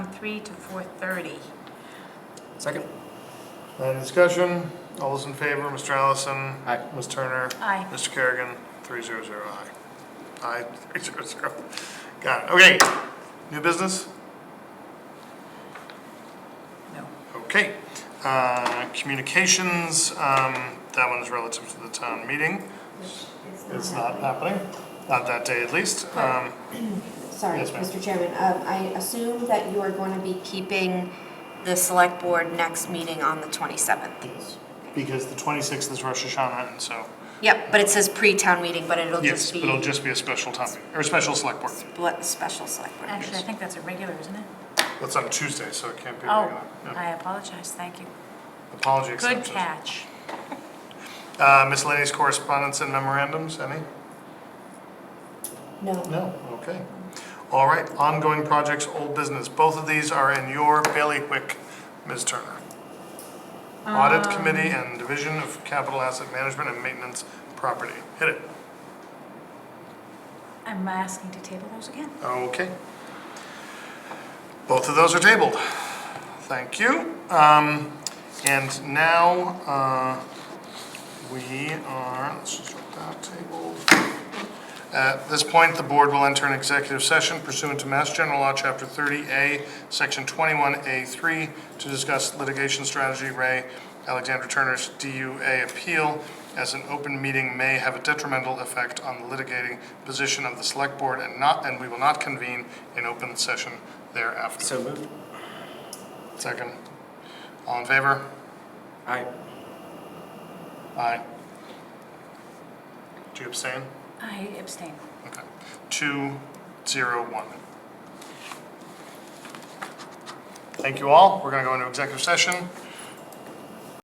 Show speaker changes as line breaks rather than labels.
three to four thirty.
Second?
Any discussion? All those in favor, Mr. Allison?
Aye.
Ms. Turner?
Aye.
Mr. Kerrigan, three zero zero, aye. Aye, three zero zero. Got it, okay. New business?
No.
Okay. Uh, communications, um, that one is relative to the town meeting. It's not happening, not that day at least. Um,
Sorry,
Yes, ma'am.
Mr. Chairman, um, I assume that you are going to be keeping the select board next meeting on the 27th.
yes, because the twenty-sixth is Rosh Hashanah, and so,
Yep, but it says pre-town meeting, but it'll
yes,
just be
it'll just be a special town, meeting- or a special select board.
split- special select board.
Actually, I think that's a regular, isn't it?
That's on Tuesday, so it can't be
Oh,
regular. Yeah.
I apologize, thank you.
Apology
Good
accepted.
catch.
Uh, miscellaneous correspondence and memorandums, any?
No.
No, okay. All right, ongoing projects, old business. Both of these are in your bailiwick, Ms. Turner. Audit Committee and Division of Capital Asset Management and Maintenance Property. Hit it.
I'm asking to table those again.
Okay. Both of those are tabled. Thank you. Um, and now, uh, we are, let's just drop that table. At this point, the board will enter an executive session pursuant to Mass General Law, Chapter 30A, Section 21A3, to discuss litigation strategy, Ray Alexander Turner's DUA appeal, as an open meeting may have a detrimental effect on the litigating position of the select board and not, and we will not convene in open session thereafter.
So moved.
Second. All in favor?
Aye.
Aye. Do you abstain?
I abstain.
Okay. Two, zero, one. Thank you all. We're gonna go into executive session.